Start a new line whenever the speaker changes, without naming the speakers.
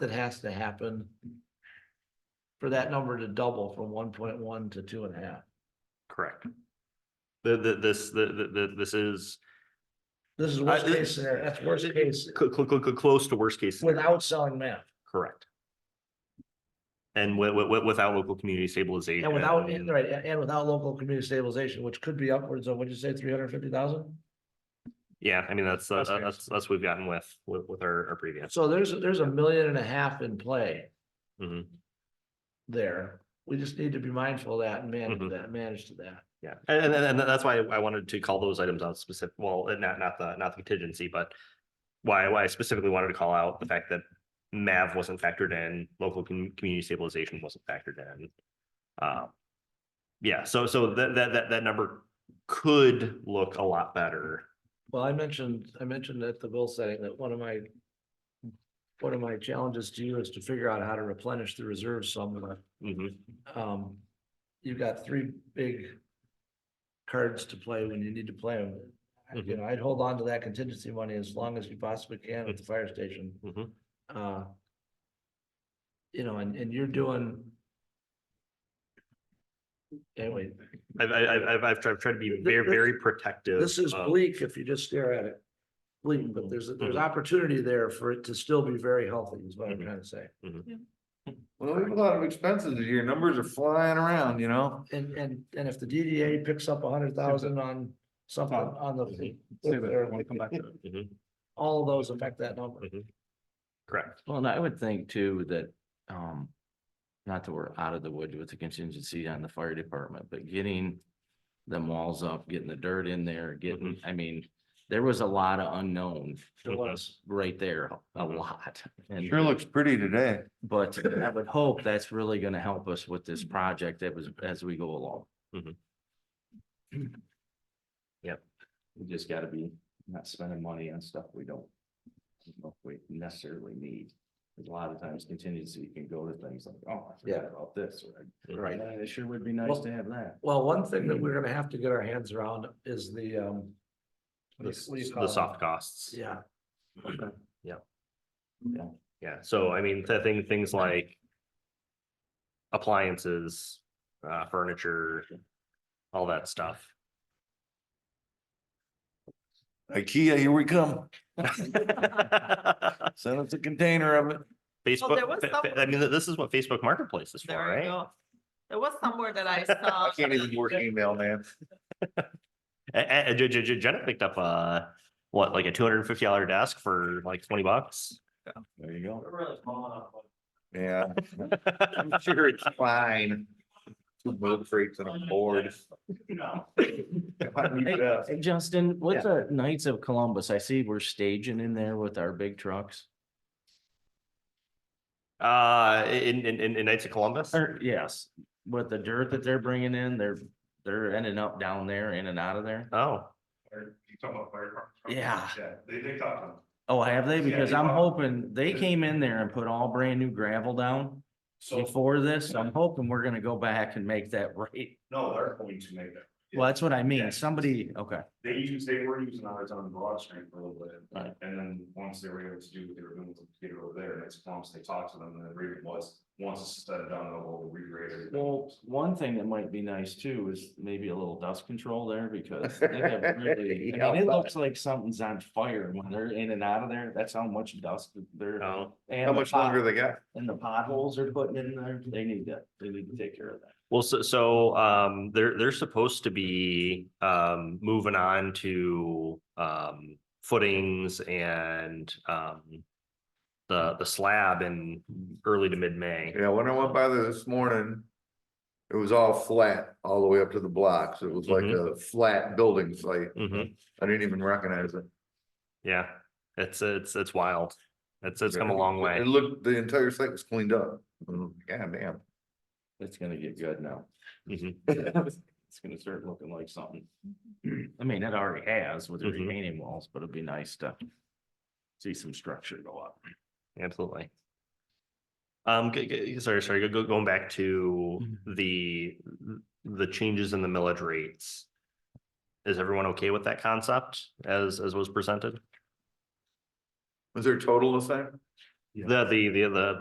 that has to happen for that number to double from one point one to two and a half.
Correct. The, the, this, the, the, the- this is
This is worst
I-
case scenario, that's worst case
cl- cl- cl- cl- close to worst case. scenario.
without selling math
Correct. And wi- wi- wi- without local community stabilization.
and without, and right, and and without local community stabilization, which could be upwards of, what'd you say, three hundred fifty thousand?
Yeah, I mean, that's, uh,
That's fair.
that's, that's what we've gotten with, with, with our, our previous.
So there's, there's a million and a half in play
Mhm.
there. We just need to be mindful of that and manage
Mhm.
that, manage to that.
Yeah, and, and, and that's why I wanted to call those items out specific, well, not, not the, not the contingency, but why, why I specifically wanted to call out the fact that MAV wasn't factored in, local com- community stabilization wasn't factored in. Uh, Yeah, so, so that, that, that, that number could look a lot better.
Well, I mentioned, I mentioned at the bill setting that one of my. One of my challenges to you is to figure out how to replenish the reserves somewhat.
Mhm.
Um, you've got three big. Cards to play when you need to play them. You
Mhm.
know, I'd hold on to that contingency money as long as you possibly can at the fire station.
Mhm.
Uh. You know, and, and you're doing. Anyway,
I've, I- I've, I've, I've tried, tried to be very,
this-
very protective.
This is
of-
bleak if you just stare at it. Bleak, but there's, there's opportunity there for it to still be very healthy is what I'm
Mhm.
trying to say.
Well, we have a lot of expenses this year. Numbers are flying around, you know?
And, and, and if the DDA picks up a hundred thousand on something
Tom,
on the.
Mhm.
Well,
Mhm,
All of those affect that number.
mhm. Correct.
and I would think too that, um, not that we're out of the woods with the contingency on the fire department, but getting them walls up, getting the dirt in there, getting, I mean, there was a lot of unknown
It was.
right there, a
Mhm.
lot. And-
Sure looks pretty today.
But I would hope that's really gonna help us with this project that was, as we go along.
Mhm. Mm-hmm. Yep.
We just gotta be not spending money on stuff we don't. don't know if We necessarily need, 'Cause a lot of times contingency can go to things like, oh, I
Yeah.
forgot about this, or,
Right.
"Man, It sure would be nice
Well-
to have that.
Well, one thing that we're gonna have to get our hands around is the, um.
The,
what do you- what do you
s-
call
the
it?
soft costs.
Yeah,
Yeah, so I mean, th- thing, things like appliances, uh, furniture, all that stuff.
IKEA, here we come.
Facebook,
Send us a container of it.
was
fa- fa- I mean, this is what Facebook Marketplace is for,
There we
right?
go. There was somewhere that I saw.
I can't even work email, man.
A- a- J- J- J- Jenna picked up a, what, like a two hundred and fifty dollar desk for like twenty bucks?
There you go. Yeah,
I'm
I'm sure it's fine. Two boat freights and a board.
Uh, Hey, hey, Justin,
Yeah.
with the Knights of Columbus, I see we're staging in there with our big trucks.
Uh, in, in, in in Knights of Columbus?
Or, yes, with the dirt that they're bringing in, they're, they're ending up down there, in and out of there.
Oh,
Yeah. Oh, have they? Because I'm hoping, they came in there and put all brand new gravel down before this. I'm hoping we're gonna go back and make that right.
No, they're going to make that.
Well, that's what I
Yeah.
mean. Somebody, okay,
They use, they were using ours on Broad Street for a little bit.
Right.
And then once they were able to do what they were doing with the computer over there, and it's once they talked to them, and the agreement was, once it's done, we'll regrade it.
well, one thing that might be nice too is maybe a little dust control there because they have really, I mean, it looks like something's on fire when they're in and out of there. That's how much dust they're.
oh.
and
How
the
much longer
pot-
they got?
And the potholes they're putting in there, they need to, they need to take care of that.
Well, so, so, um, they're, they're supposed to be, um, moving on to, um, footings and, um, the, the slab in early to mid-May.
Yeah, when I went by there this morning, it was all flat all the way up to the blocks. It was like a flat building site.
Mhm.
I didn't even recognize it.
Yeah, it's, it's, it's wild. It's, it's come a
Yeah.
long
It
way.
looked, the entire site was cleaned up. Mm, God damn.
It's gonna get good now. Mm-hmm.
Mhm.
It's gonna start looking like something. Mm-hmm. I mean, it already has with the
Mhm.
remaining walls, but it'd be nice to see some structure go up.
Absolutely. Um, g- g- sorry, sorry, go- go, going back to the, the changes in the millage rates. Is everyone okay with that concept as, as was presented?
Was there a total this time?
The, the, the, the,